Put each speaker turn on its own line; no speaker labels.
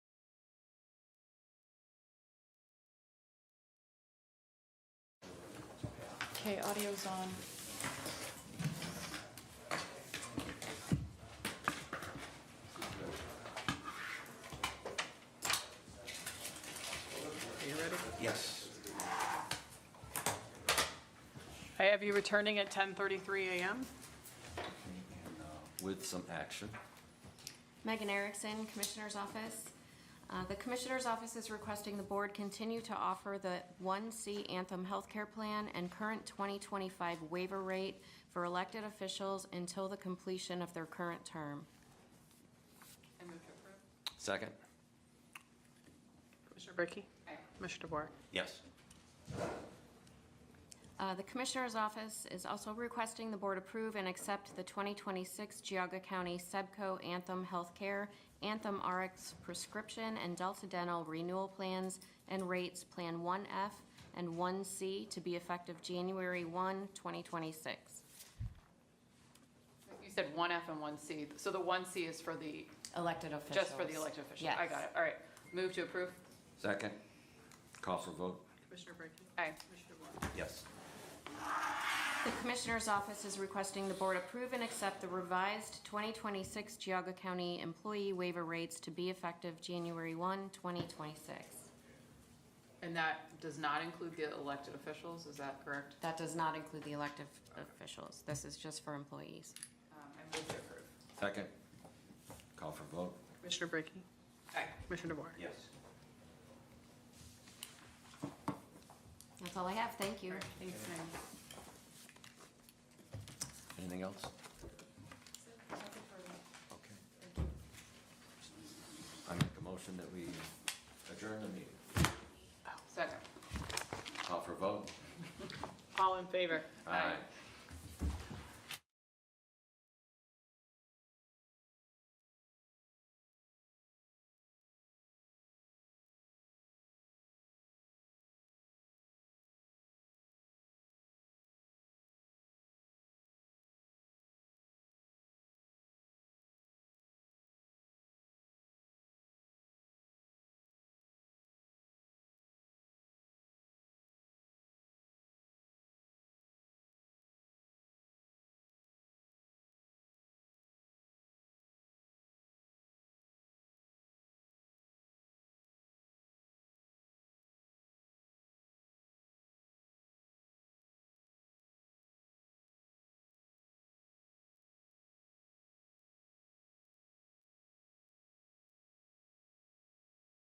Okay, audio's on.
Are you ready?
Yes.
I have you returning at 10:33 a.m.
With some action.
Megan Erickson, Commissioner's Office. Uh, The Commissioner's Office is requesting the board continue to offer the 1C Anthem Healthcare Plan and current 2025 waiver rate for elected officials until the completion of their current term.
Second?
Commissioner Brackey? Commissioner DeBoer?
Yes.
Uh, The Commissioner's Office is also requesting the board approve and accept the 2026 Geauga County Sebco Anthem Healthcare, Anthem RX Prescription, and Delta Dental Renewal Plans and Rates Plan 1F and 1C to be effective January 1, 2026.
You said one F and one C, so the one C is for the,
Elected officials.
just for the elected officials? I got it, all right. Move to approve?
Second? Call for vote?
Commissioner Brackey?
Aye.
Commissioner DeBoer?
Yes.
The Commissioner's Office is requesting the Board approve and accept the revised 2026 Geauga County Employee Waiver Rates to be effective January 1, 2026.
And that does not include the elected officials, is that correct?
That does not include the elective officials. This is just for employees.
Um, I move to approve.
Second? Call for vote?
Commissioner Brackey?
Aye.
Commissioner DeBoer?
Yes.
That's all I have. Thank you.
All right, Thanks, Megan.
Anything else? Okay. I make a motion that we adjourn the meeting.
Oh.
Second.
Call for vote?
All in favor?
Aye.